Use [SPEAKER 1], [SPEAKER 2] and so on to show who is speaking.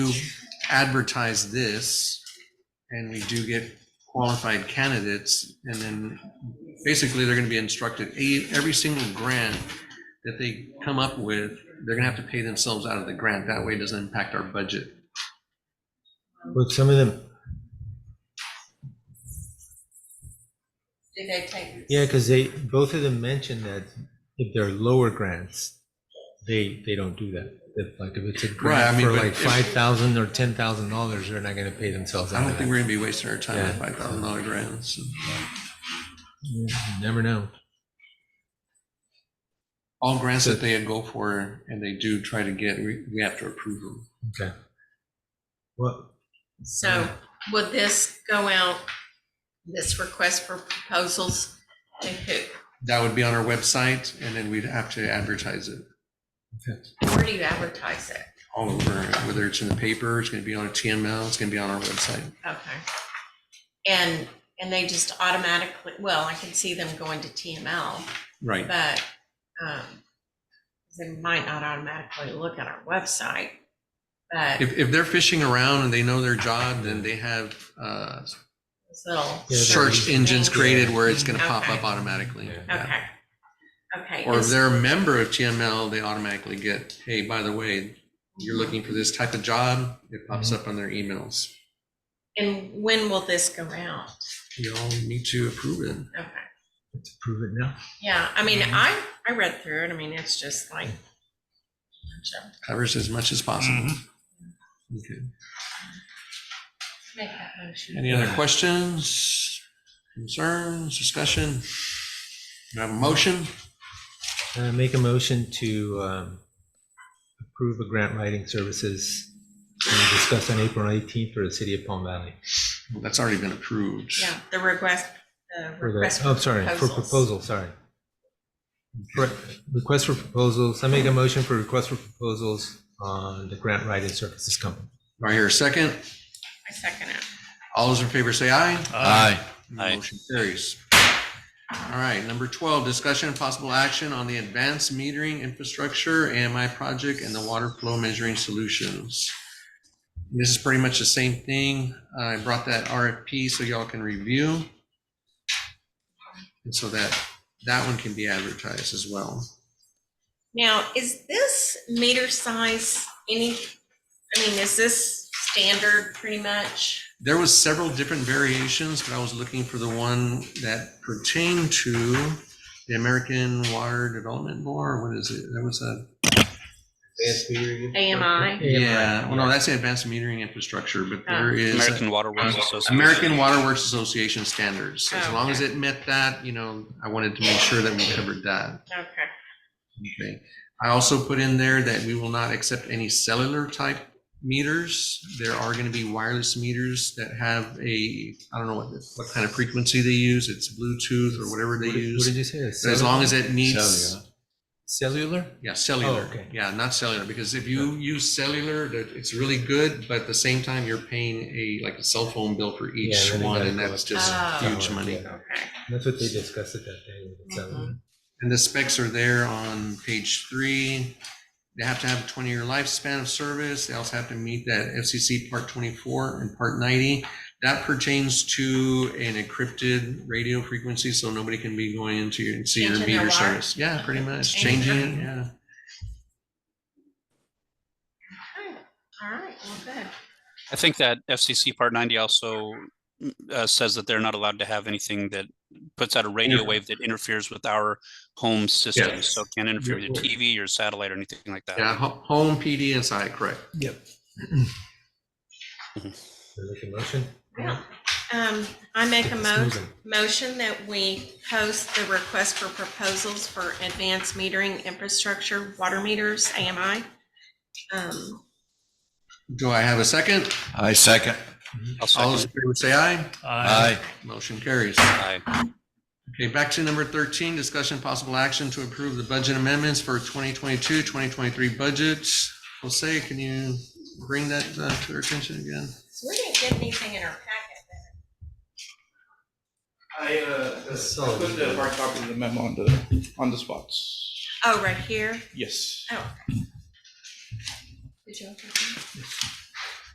[SPEAKER 1] do advertise this and we do get qualified candidates, and then basically they're gonna be instructed, e- every single grant that they come up with, they're gonna have to pay themselves out of the grant. That way it doesn't impact our budget.
[SPEAKER 2] But some of them,
[SPEAKER 3] Did they take?
[SPEAKER 2] yeah, because they, both of them mentioned that if they're lower grants, they, they don't do that. If like, if it's a
[SPEAKER 1] Right, I
[SPEAKER 2] grant
[SPEAKER 1] mean,
[SPEAKER 2] for
[SPEAKER 1] but
[SPEAKER 2] like
[SPEAKER 1] if-
[SPEAKER 2] five thousand or ten thousand dollars, they're not gonna pay themselves
[SPEAKER 1] I
[SPEAKER 2] out
[SPEAKER 1] don't
[SPEAKER 2] of
[SPEAKER 1] think
[SPEAKER 2] that.
[SPEAKER 1] we're gonna be wasting our time on
[SPEAKER 2] Yeah.
[SPEAKER 1] five thousand dollar grants.
[SPEAKER 2] You Never know.
[SPEAKER 1] All grants that they go for and they do try to get, we, we have to approve them.
[SPEAKER 2] Okay. Well,
[SPEAKER 3] So will this go out, this request for proposals to who?
[SPEAKER 1] That would be on our website and then we'd have to advertise it.
[SPEAKER 3] Where do you advertise it?
[SPEAKER 1] all over, whether it's in the paper, it's gonna be on a TML, it's gonna be on our website.
[SPEAKER 3] Okay. And, and they just automatically, well, I can see them going to TML,
[SPEAKER 1] Right.
[SPEAKER 3] but um, they might not automatically look at our website. But
[SPEAKER 1] If, if they're fishing around and they know their job, then they have, uh,
[SPEAKER 3] this little,
[SPEAKER 2] Yeah, that'd
[SPEAKER 1] search
[SPEAKER 2] be-
[SPEAKER 1] engines created where it's gonna pop
[SPEAKER 3] Okay.
[SPEAKER 1] up automatically.
[SPEAKER 2] Yeah.
[SPEAKER 1] Yeah.
[SPEAKER 3] okay. Okay.
[SPEAKER 1] Or if
[SPEAKER 3] is-
[SPEAKER 1] they're a member of TML, they automatically get, hey, by the way, you're looking for this type of job, it pops
[SPEAKER 2] Mm-hmm.
[SPEAKER 1] up on their emails.
[SPEAKER 3] And when will this go out?
[SPEAKER 1] You all need to approve it.
[SPEAKER 3] Okay.
[SPEAKER 2] let's prove it now.
[SPEAKER 3] Yeah, I mean,
[SPEAKER 2] Mhm.
[SPEAKER 3] I, I read through it. I mean, it's just like.
[SPEAKER 1] Covers as much as possible.
[SPEAKER 2] Mm-hmm.
[SPEAKER 1] Okay.
[SPEAKER 3] Make that motion.
[SPEAKER 1] Any other questions, concerns, discussion? Do I have a motion?
[SPEAKER 2] Uh, make a motion to, um, approve a grant writing services we discussed on April eighteenth for the city of Palm Valley.
[SPEAKER 1] Well, That's already been approved.
[SPEAKER 3] Yeah, the request, the
[SPEAKER 2] For the,
[SPEAKER 3] request.
[SPEAKER 2] oh, sorry, for
[SPEAKER 3] proposals.
[SPEAKER 2] proposal, sorry. Re- Request for proposals, I make a motion for request for proposals on the grant writing services company.
[SPEAKER 1] Do I hear a second?
[SPEAKER 3] I second it.
[SPEAKER 1] All those in favor say aye.
[SPEAKER 4] Aye. Aye.
[SPEAKER 1] Motion carries. All right, number 12, discussion and possible action on the advanced metering infrastructure AMI project and the water flow measuring solutions. This is pretty much the same thing. I brought that RFP so y'all can review. And so that, that one can be advertised as well.
[SPEAKER 3] Now, is this meter size any, I mean, is this standard pretty much?
[SPEAKER 1] There was several different variations, but I was looking for the one that pertained to the American Water Development Board. What is it? That was a,
[SPEAKER 3] AMI?
[SPEAKER 1] yeah, well, no, that's the Advanced Metering Infrastructure, but
[SPEAKER 3] Ah,
[SPEAKER 1] there is uh,
[SPEAKER 4] American Water Works Association.
[SPEAKER 1] American Water Works Association standards. As
[SPEAKER 3] Oh,
[SPEAKER 1] long as
[SPEAKER 3] okay.
[SPEAKER 1] it met that, you know, I wanted to make sure that we covered that.
[SPEAKER 3] Okay,
[SPEAKER 1] Okay. I also put in there that we will not accept any cellular type meters. There are going to be wireless meters that have a, I don't know what, what kind of frequency they use. It's Bluetooth or whatever they
[SPEAKER 2] What did
[SPEAKER 1] use.
[SPEAKER 2] what did you say?
[SPEAKER 1] But as long as it meets,
[SPEAKER 2] Cellular?
[SPEAKER 1] yeah, cellular.
[SPEAKER 2] Oh, okay.
[SPEAKER 1] Yeah, not cellular, because if you use cellular, that it's really good, but at the same time, you're paying a, like a cell phone bill for
[SPEAKER 2] Yeah,
[SPEAKER 1] each
[SPEAKER 2] then they
[SPEAKER 1] one,
[SPEAKER 2] gotta
[SPEAKER 1] and
[SPEAKER 2] go
[SPEAKER 1] that's
[SPEAKER 2] up.
[SPEAKER 1] just
[SPEAKER 3] Ah.
[SPEAKER 2] Oh.
[SPEAKER 1] huge money.
[SPEAKER 2] Yeah.
[SPEAKER 3] okay.
[SPEAKER 2] That's what they discussed at that day. with the
[SPEAKER 3] Mm-hmm.
[SPEAKER 2] cellular.
[SPEAKER 1] And the specs are there on page three. They have to have a twenty-year lifespan of service. They also have to meet that FCC Part twenty-four and Part ninety. That pertains to an encrypted radio frequency, so nobody can be going into your, and see your
[SPEAKER 3] Changing their
[SPEAKER 1] meter
[SPEAKER 3] wire?
[SPEAKER 1] service. Yeah, pretty much,
[SPEAKER 3] Changing
[SPEAKER 1] changing
[SPEAKER 3] their-
[SPEAKER 1] it, yeah.
[SPEAKER 3] Okay, All right, well, good.
[SPEAKER 4] I think that FCC Part 90 also uh, says that they're not allowed to have anything that puts out a radio
[SPEAKER 1] Interfere.
[SPEAKER 4] wave that interferes with our home systems. So it can't interfere with your
[SPEAKER 1] You're-
[SPEAKER 4] TV, your satellite, or anything like that.
[SPEAKER 1] Yeah, ho- home PD and site, correct.
[SPEAKER 2] Can I Make a motion?
[SPEAKER 3] Yeah. Um, I make a
[SPEAKER 2] It's
[SPEAKER 3] mo-
[SPEAKER 2] moving.
[SPEAKER 3] motion that we post the request for proposals for advanced metering infrastructure, water meters, AMI. Um,
[SPEAKER 1] Do I have a second?
[SPEAKER 5] I second.
[SPEAKER 4] I'll
[SPEAKER 1] All those in
[SPEAKER 4] second.
[SPEAKER 1] favor say aye.
[SPEAKER 5] Aye.
[SPEAKER 1] Motion carries.
[SPEAKER 4] Aye.
[SPEAKER 1] Okay, back to number 13, discussion possible action to approve the budget amendments for 2022, 2023 budgets. Jose, can you bring that uh, to our attention again?
[SPEAKER 3] So we didn't get anything in our packet.
[SPEAKER 6] I uh, I
[SPEAKER 2] So-
[SPEAKER 6] put the hard copy of the memo on the, on the spots.
[SPEAKER 3] Oh, right here.
[SPEAKER 6] Yes.
[SPEAKER 3] Oh. Did you open it?